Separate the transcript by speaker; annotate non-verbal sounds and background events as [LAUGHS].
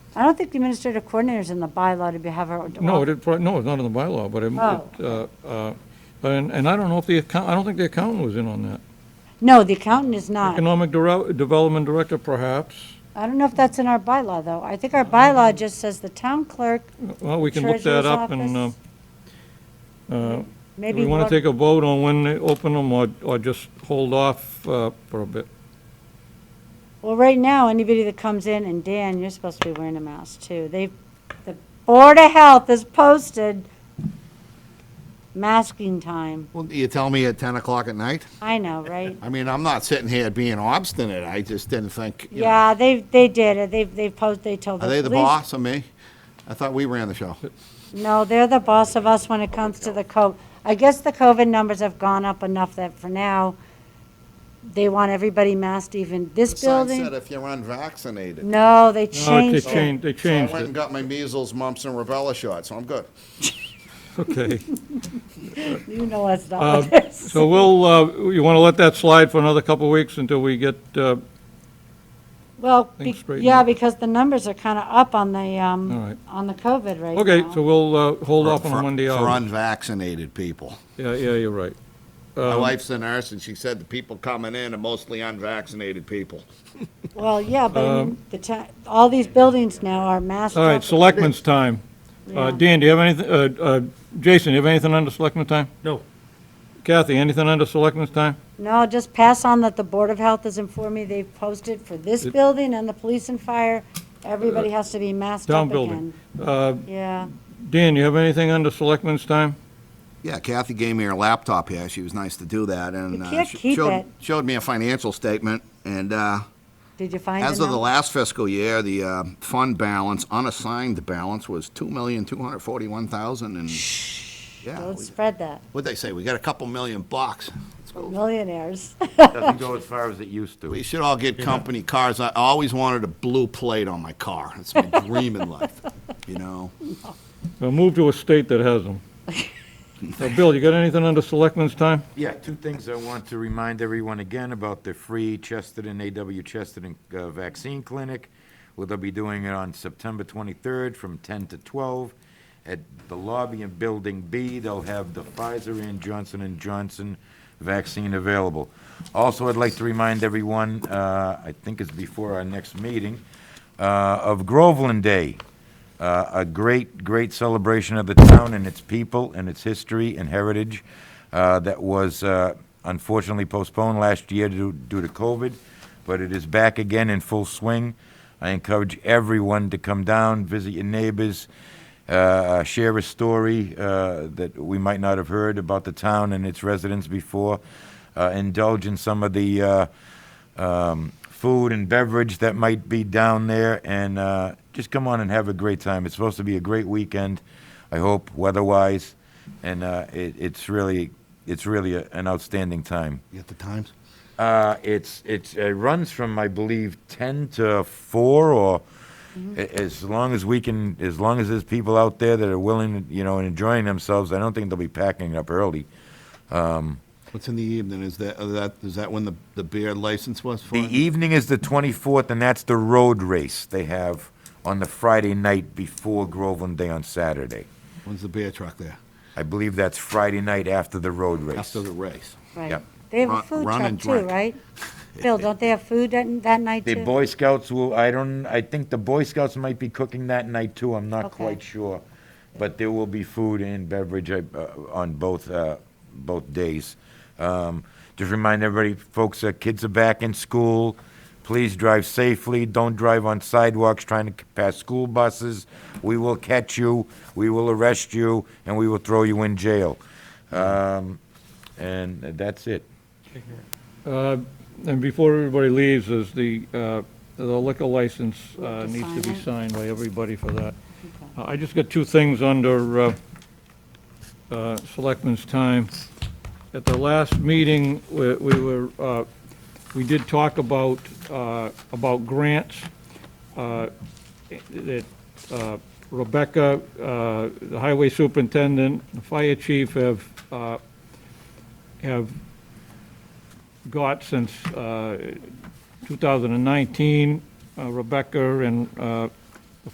Speaker 1: I don't think the administrative coordinator's in the bylaw to be, have her.
Speaker 2: No, it, is- no, it's not in the bylaw, but it-
Speaker 1: Oh.
Speaker 2: it, uh, uh, and, and I don't know if the account, I don't think the accountant was in on that.
Speaker 1: No, the accountant is not.
Speaker 2: Economic Dere- Development Director perhaps,
Speaker 1: I don't know if that's in our bylaw, though. I think our bylaw just says the town clerk,
Speaker 2: well, we can look
Speaker 1: Treasurer's
Speaker 2: that up and, uh,
Speaker 1: office,
Speaker 2: uh, do
Speaker 1: maybe.
Speaker 2: we want
Speaker 1: what-
Speaker 2: to take a vote on when they open them or, or just hold off, uh, for a bit?
Speaker 1: Well, right now, anybody that comes in, and Dan, you're supposed to be wearing a mask, too. They, the Board of Health has posted masking time.
Speaker 3: Well, you tell me at 10 o'clock at night?
Speaker 1: I know,
Speaker 3: [LAUGHS]
Speaker 1: right?
Speaker 3: I mean, I'm not sitting here being obstinate, I just didn't think, you know.
Speaker 1: Yeah, they, they did it. They, they posed, they told the
Speaker 3: Are
Speaker 1: police.
Speaker 3: they the boss or me? I thought we ran the show.
Speaker 1: No, they're the boss of us when it comes to the co, I guess the COVID numbers have gone up enough that for now, they want everybody masked even this
Speaker 3: The sign said
Speaker 1: building.
Speaker 3: if you're unvaccinated.
Speaker 1: No, they
Speaker 2: No, they
Speaker 1: changed it.
Speaker 2: changed, they
Speaker 3: So I
Speaker 2: changed
Speaker 3: went and
Speaker 2: it,
Speaker 3: got my measles, mumps, and rubella shot, so I'm good.
Speaker 2: okay.
Speaker 1: You know us,
Speaker 2: Uh,
Speaker 1: not with this.
Speaker 2: So we'll, uh, you want to let that slide for another couple of weeks until we get, uh,
Speaker 1: Well,
Speaker 2: things
Speaker 1: be-
Speaker 2: straightened
Speaker 1: yeah,
Speaker 2: out.
Speaker 1: because the numbers are kind of up on the,
Speaker 2: All
Speaker 1: um,
Speaker 2: right.
Speaker 1: on the COVID right now.
Speaker 2: okay, so we'll uh, hold off on
Speaker 3: For-
Speaker 2: Monday
Speaker 3: For
Speaker 2: hours.
Speaker 3: unvaccinated people.
Speaker 2: Yeah, yeah, you're right.
Speaker 3: My wife's a nurse, and she said the people coming in are mostly unvaccinated people.
Speaker 1: Well, yeah, but I mean, the ta, all these buildings now are masked
Speaker 2: um, All right,
Speaker 1: up.
Speaker 2: selectmen's time. Uh,
Speaker 1: Yeah.
Speaker 2: Dan, do you have anything, uh, uh, Jason, you have anything under selectmen's time?
Speaker 4: No.
Speaker 2: Kathy, anything under selectmen's time?
Speaker 1: No, just pass on that the Board of Health has informed me they've posted for this building and the police and fire, everybody has to be masked
Speaker 2: Town
Speaker 1: up
Speaker 2: building.
Speaker 1: again. Yeah,
Speaker 2: Uh, Dan, you have anything under selectmen's time?
Speaker 3: Yeah, Kathy gave me her laptop here. She was nice to do that, and
Speaker 1: You
Speaker 3: uh,
Speaker 1: can't
Speaker 3: she
Speaker 1: keep
Speaker 3: showed,
Speaker 1: it.
Speaker 3: showed me a financial statement. And uh,
Speaker 1: did you find it
Speaker 3: as of the
Speaker 1: now?
Speaker 3: last fiscal year, the uh, fund balance, unassigned balance, was two million two hundred forty-one thousand. And yeah,
Speaker 1: Don't
Speaker 3: we-
Speaker 1: spread that,
Speaker 3: what'd they say? We got a couple million [LAUGHS] bucks. Let's go.
Speaker 1: millionaires. [LAUGHS]
Speaker 4: Doesn't go as far as it used to.
Speaker 3: We should all get company cars. I always wanted a blue plate on my car. It's [LAUGHS] my dream in life, you know.
Speaker 2: Well, Move to a state that has them. Uh, Bill, you got anything under selectmen's time?
Speaker 4: Yeah, two things I want to remind everyone again about the free Chesterton, AW Chesterton uh, Vaccine Clinic. Well, they'll be doing it on September 23rd from 10 to 12 at the lobby in Building B. They'll have the Pfizer and Johnson and Johnson vaccine available. Also, I'd like to remind everyone, uh, I think it's before our next meeting, uh, of Groveland Day. Uh, a great, great celebration of the town and its people and its history and heritage uh, that was uh, unfortunately postponed last year due, due to COVID, but it is back again in full swing. I encourage everyone to come down, visit your neighbors, uh, share a story uh, that we might not have heard about the town and its residents before, uh, indulge in some of the uh, um, food and beverage that might be down there, and uh, just come on and have a great time. It's supposed to be a great weekend, I hope, weather-wise, and uh, it, it's really, it's really a, an outstanding time.
Speaker 3: You got the times?
Speaker 4: Uh, it's it's it runs from I believe ten to four, or a- as long as we can, as long as there's people out there that are willing, you know, and enjoying themselves. I don't think they'll be packing up early.
Speaker 3: What's in the evening? Is that, is that, is that when the, the beer license was for?
Speaker 4: The evening is the 24th, and that's the road race they have on the Friday night before Groveland Day on Saturday.
Speaker 3: When's the beer truck there?
Speaker 4: I believe that's Friday night after the road race.
Speaker 3: After the race.
Speaker 1: Right.
Speaker 4: Yep.
Speaker 1: They have a
Speaker 3: Run-
Speaker 1: food
Speaker 3: run
Speaker 1: truck
Speaker 3: and
Speaker 1: too,
Speaker 3: drink.
Speaker 1: right? Bill, don't they have food that, that night
Speaker 4: The
Speaker 1: too?
Speaker 4: Boy Scouts will, I don't, I think the Boy Scouts might be cooking that night too, I'm not
Speaker 1: Okay.
Speaker 4: quite sure. But there will be food and beverage uh, on both, uh, both days. Um, Just remind everybody, folks, uh, kids are back in school. Please drive safely, don't drive on sidewalks trying to pass school buses. We will catch you, we will arrest you, and we will throw you in jail. Um, And that's it.
Speaker 2: Uh, And before everybody leaves, is the, uh, the liquor license
Speaker 1: We have
Speaker 2: uh,
Speaker 1: to
Speaker 2: needs
Speaker 1: sign
Speaker 2: to be
Speaker 1: it?
Speaker 2: signed by everybody for that. Uh, I just got two things under uh, uh, Selectmen's time. At the last meeting, we we were, uh, we did talk about, uh, about grants. uh, That uh, Rebecca, uh, the highway superintendent, the fire chief have, uh, have got since uh, 2019. uh, Rebecca and uh,